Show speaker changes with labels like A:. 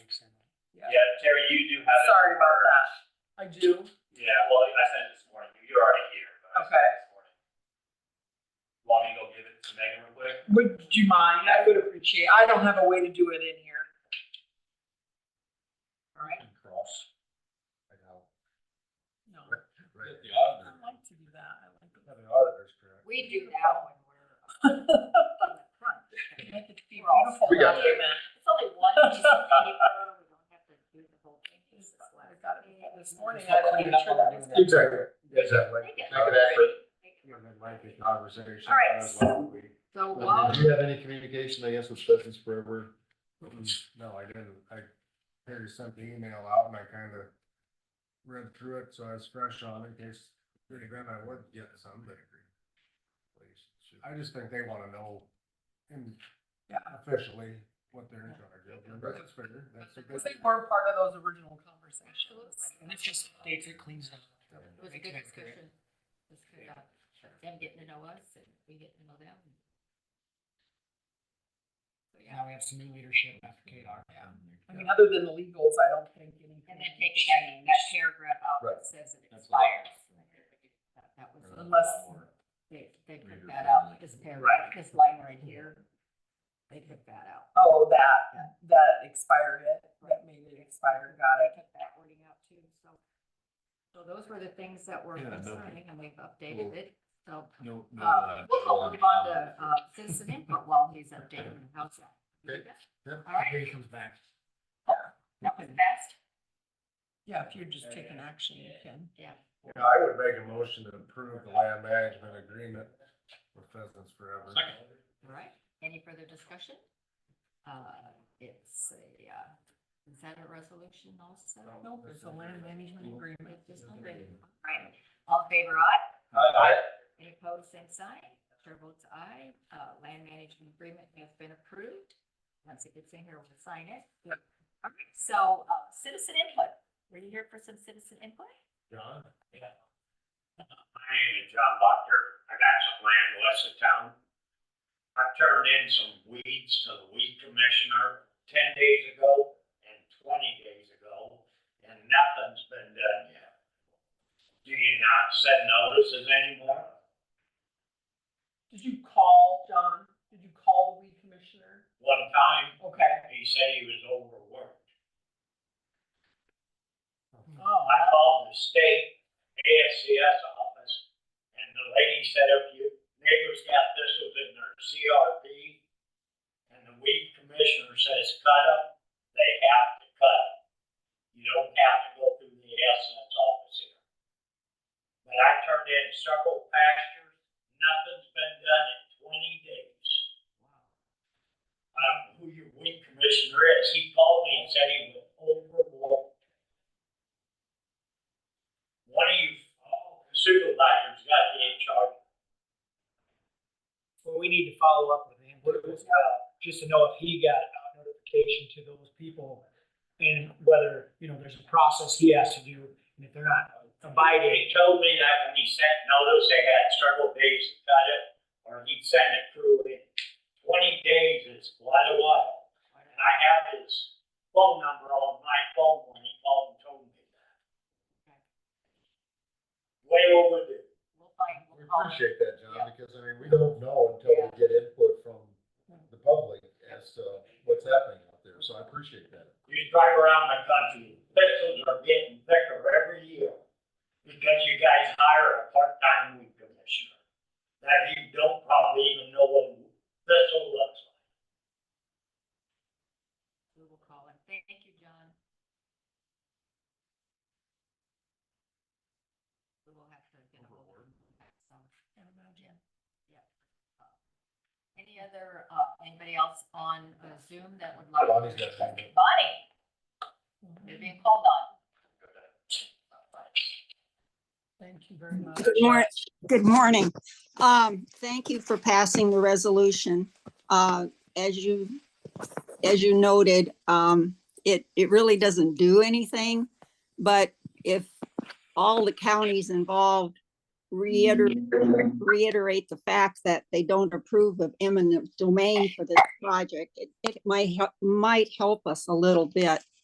A: yeah.
B: Yeah, Terry, you do have. it.
A: Sorry about that. I do.
B: Yeah, well, I sent it this morning. You- You're already here. but I sent it
A: Okay.
B: this morning. Want me to go give it to Megan real quick?
A: Would you mind? I would appreciate, I don't have a way to do it in here. All right,
C: Cross. I know.
A: no.
C: Right, the
A: I
C: auditor.
A: like to do that. I like to.
C: Have an auditor's correct.
D: We do that when we're.
A: Make it be beautiful
C: We got
A: document.
D: It's only one piece of paper, we don't have to do the whole thing. It's just
A: I
D: like-
A: got it This morning, I had to make sure that was.
C: Exactly, exactly.
D: Make
C: Make it
D: it
C: accurate.
D: Make
E: Yeah,
D: it
E: that
D: look
E: might be
D: pretty.
E: conversation.
D: All right,
E: as well. We-
D: So
E: Well,
D: while,
E: Did you have any communication, I guess, with Business Forever? No, I didn't. I, Harry sent the email out and I kind of read through it, so I was fresh on it in case, pretty grand, I would get some, but I just think they want to know in-
A: Yeah.
E: officially what they're in charge of. and
C: Right.
E: That's fair. That's a
A: Because
E: good.
A: they were part of those original conversations.
D: And it's just-
F: Dates it cleans it up.
D: it was a good discussion. It was good about them getting to know us and we getting to know them. So, yeah,
F: Now we have some new leadership after KDR.
A: Yeah. I mean, other than the legals, I don't think anything.
D: and then taking that, that paragraph out that says it
C: That's
D: expires. That- That was.
A: Unless-
D: They, they took
C: Reader
D: that out,
C: friendly.
D: this paragraph, this line right here. They took that out.
A: Oh, that, that expired it, that made it expire, got it.
D: They took that wording out too, so. So those were the things that were
C: Yeah, no.
D: concerning and we've updated it, so.
C: No, no.
D: Uh,
C: uh,
D: we'll go on to, uh, citizen input while he's updating, how's that?
C: Okay. Yep.
D: All right,
F: Here he comes back.
D: that was fast,
A: Yeah, if you're just taking action, you can.
D: yeah.
E: Yeah, I would make a motion to approve the land management agreement with Business Forever.
B: Second.
D: All right, any further discussion? Uh, it's a, uh, is that a resolution also?
A: Nope, it's a land management agreement.
D: It's just one thing. All right, all in favor aye? Any opposed, same sign. Chair votes aye. Uh, land management agreement has been approved. Once it gets in here, we'll sign it. All right, so, uh, citizen input. Were you here for some citizen input?
E: John?
B: My name is John Butker. I got some land west of town. I turned in some weeds to the weed commissioner ten days ago and twenty days ago, and nothing's been done yet. Do you not send notices anymore?
A: Did you call, John? Did you call the weed commissioner?
B: One time,
A: Okay.
B: he said he was overworked.
A: Oh,
B: I called the state ASCS office, and the lady said if you neighbors got thistles in their CRP, and the weed commissioner says cut them, they have to cut 'em. You don't have to go through the ASCS office here. But I turned in several pastures, nothing's been done in twenty days. I don't know who your weed commissioner is, he called me and said he was overworked one of you oh, supervisors got to be in charge.
F: Well, we need to follow up with him, what was, uh, just to know if he got a notification to those people and whether, you know, there's a process he has to do, and if they're not abiding.
B: He told me that when he sent notice, they had several days to cut it, or he'd send it through in twenty days is quite a while. And I have his phone number on my phone when he called and told me that. Way overdue.
D: We'll find, we'll
E: We
D: call.
E: appreciate that, John,
D: Yeah.
E: because I mean, we don't know until we get input from the public as to what's happening out there, so I appreciate that.
B: You drive around the country, thistles are getting thicker every year because you guys hire a part-time weed commissioner. That you don't probably even know what thistle looks like.
D: We will call him. Thank you, John. We will have to get a hold of him. So, Yep. Uh, Any other, uh, anybody else on uh, Zoom that would like?
E: Bonnie's got something.
D: Bonnie,
A: Oh,
D: you're being called on.
A: thank you very much.
G: Good morning. Good morning. Um, thank you for passing the resolution. Uh, as you, as you noted, um, it, it really doesn't do anything. But if all the counties involved reiterate, reiterate the fact that they don't approve of eminent domain for this project, it, it might, help might help us a little bit.